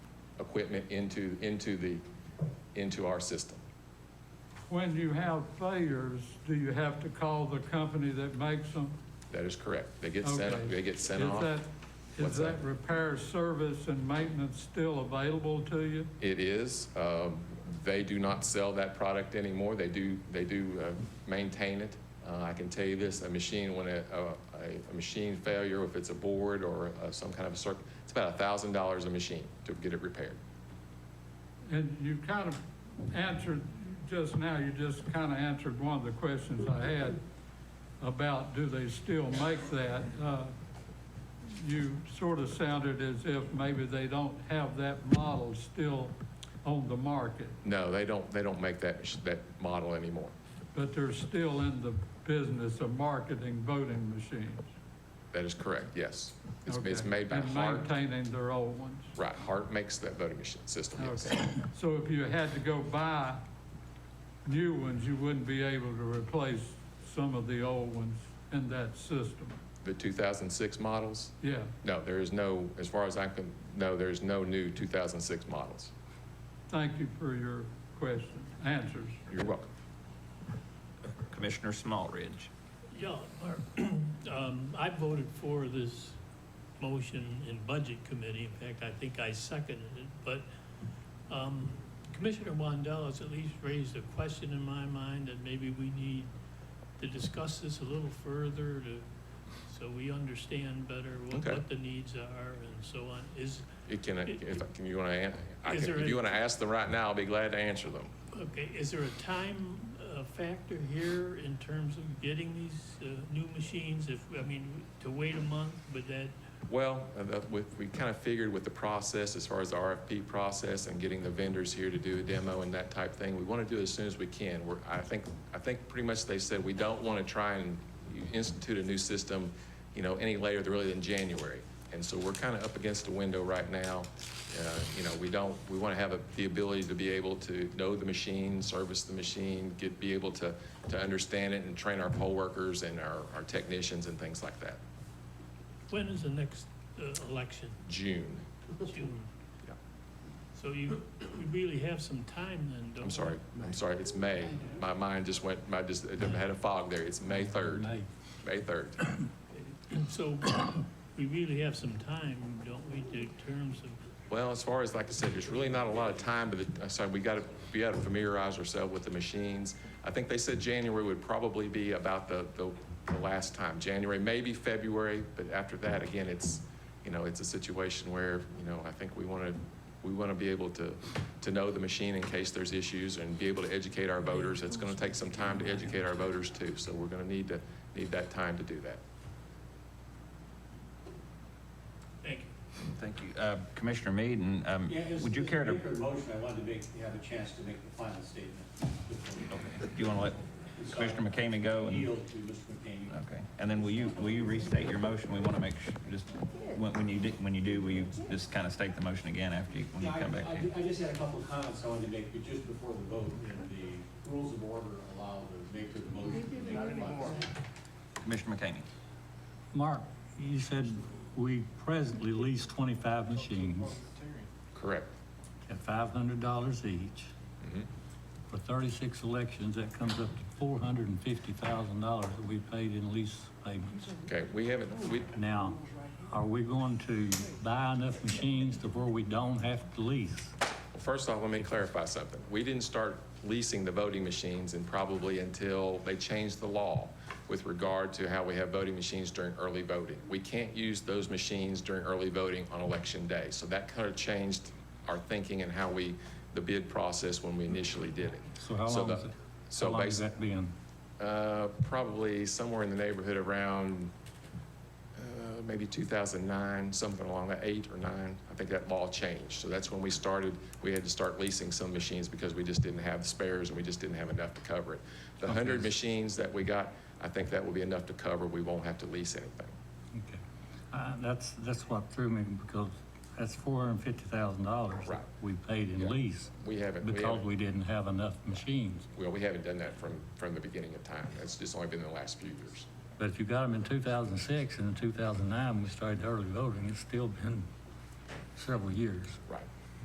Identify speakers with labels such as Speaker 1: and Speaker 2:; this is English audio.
Speaker 1: equipment into, into the, into our system.
Speaker 2: When you have failures, do you have to call the company that makes them?
Speaker 1: That is correct. They get sent,
Speaker 2: Okay.
Speaker 1: they get sent
Speaker 2: Is
Speaker 1: off.
Speaker 2: that- Is
Speaker 1: What's
Speaker 2: that
Speaker 1: that?
Speaker 2: repair service and maintenance still available to you?
Speaker 1: It is. um, They do not sell that product anymore. They do, they do uh, maintain it. Uh, I can tell you this, a machine, when a, a- a, a machine failure, if it's a board or uh, some kind of a circuit, it's about a thousand dollars a machine to get it repaired.
Speaker 2: And you kind of answered, just now, you just kind of answered one of the questions I had about do they still make that? Uh, You sort of sounded as if maybe they don't have that model still on the market,
Speaker 1: No, they don't, they don't make that, mach- that model anymore.
Speaker 2: but they're still in the business of marketing voting machines.
Speaker 1: That is correct, yes. It's, it's
Speaker 2: Okay.
Speaker 1: made by Hart.
Speaker 2: And maintaining their old ones.
Speaker 1: Right, Hart makes that voting machine system, yes.
Speaker 2: Okay, so if you had to go buy new ones, you wouldn't be able to replace some of the old ones in that system?
Speaker 1: The 2006 models,
Speaker 2: Yeah,
Speaker 1: no, there is no, as far as I can, no, there's no new 2006 models.
Speaker 2: thank you for your question, answers.
Speaker 1: You're welcome.
Speaker 3: Commissioner Smallridge.
Speaker 4: Yeah, Mark, um, I voted for this motion in Budget Committee. In fact, I think I seconded it, but, um, Commissioner Wandell has at least raised a question in my mind that maybe we need to discuss this a little further to, so we understand better what,
Speaker 1: Okay.
Speaker 4: what the needs are and so on. Is,
Speaker 1: It can, if, can you want to, I
Speaker 4: Is
Speaker 1: can-
Speaker 4: there
Speaker 1: if
Speaker 4: any-
Speaker 1: you want to ask them right now, I'll be glad to answer them.
Speaker 4: okay, is there a time uh, factor here in terms of getting these, uh, new machines? If, I mean, to wait a month, would that
Speaker 1: Well, uh, that- we, we kind of figured with the process, as far as the RFP process and getting the vendors here to do a demo and that type thing, we want to do it as soon as we can. We're, I think, I think pretty much they said we don't want to try and institute a new system, you know, any later than really than January. And so we're kind of up against the window right now. Uh, You know, we don't, we want to have a- the ability to be able to know the machine, service the machine, get, be able to, to understand it and train our poll workers and our, our technicians and things like that.
Speaker 4: When is the next uh, election?
Speaker 1: June.
Speaker 4: June.
Speaker 1: Yeah.
Speaker 4: So you, you really have some time then, don't you?
Speaker 1: I'm sorry, I'm sorry, it's May. My mind just went, I just, I had a fog there. It's May 3rd. May. 3rd.
Speaker 4: And so we really have some time, don't we, in terms of,
Speaker 1: Well, as far as, like I said, there's really not a lot of time, but it- so we got to, we got to familiarize ourselves with the machines. I think they said January would probably be about the, the the last time, January, maybe February, but after that, again, it's, you know, it's a situation where, you know, I think we want to, we want to be able to, to know the machine in case there's issues and be able to educate our voters. It's going to take some time to educate our voters too, so we're going to need to, need that time to do that.
Speaker 4: thank you.
Speaker 3: Thank you. Uh, Commissioner Meaden, um,
Speaker 5: Yeah, it's-
Speaker 3: would you
Speaker 5: it's a
Speaker 3: care to,
Speaker 5: bigger motion, I wanted to make, have a chance to make the final statement. before
Speaker 3: do you want to let
Speaker 5: So
Speaker 3: Commissioner Uh, McCamey go?
Speaker 5: I
Speaker 3: and-
Speaker 5: Yield to Mr. McCamey.
Speaker 3: Okay, and then will you, will you restate your motion? We want to make sure, just, when when you, do- when you do, will you just kind of state the motion again after you, when you
Speaker 5: Yeah, I-
Speaker 3: come back
Speaker 5: I
Speaker 3: here?
Speaker 5: ju- I just had a couple of comments I wanted to make, but just before the vote, and the rules of order allow the maker of the motion. to not anymore.
Speaker 3: Commissioner McCamey?
Speaker 6: Mark, you said we presently lease 25 machines
Speaker 1: Correct.
Speaker 6: at $500 each.
Speaker 3: Mm-hmm.
Speaker 1: Mhm.
Speaker 6: For 36 elections, that comes up to $450,000 that we paid in lease payments.
Speaker 1: Okay, we haven't, we,
Speaker 6: Now, are we going to buy enough machines to where we don't have to lease?
Speaker 1: First off, let me clarify something. We didn't start leasing the voting machines and probably until they changed the law with regard to how we have voting machines during early voting. We can't use those machines during early voting on election day. So that kind of changed our thinking and how we, the bid process when we initially did it.
Speaker 6: So how long
Speaker 1: the-
Speaker 6: is it?
Speaker 1: So
Speaker 6: How long has
Speaker 1: basically,
Speaker 6: that been?
Speaker 1: uh, probably somewhere in the neighborhood around, uh, maybe 2009, something along that, eight or nine. I think that law changed. So that's when we started, we had to start leasing some machines because we just didn't have spares and we just didn't have enough to cover it. The 100 machines that we got, I think that will be enough to cover. We won't have to lease anything.
Speaker 6: Okay. Uh, That's, that's what threw me because that's $450,000
Speaker 1: Right.
Speaker 6: that we paid
Speaker 1: Yeah.
Speaker 6: in lease
Speaker 1: We haven't, we
Speaker 6: because
Speaker 1: haven't,
Speaker 6: we didn't have enough machines.
Speaker 1: well, we haven't done that from, from the beginning of time. That's just only been in the last few years.
Speaker 6: But if you got them in 2006 and in 2009, we started early voting, it's still been several years.
Speaker 1: Right.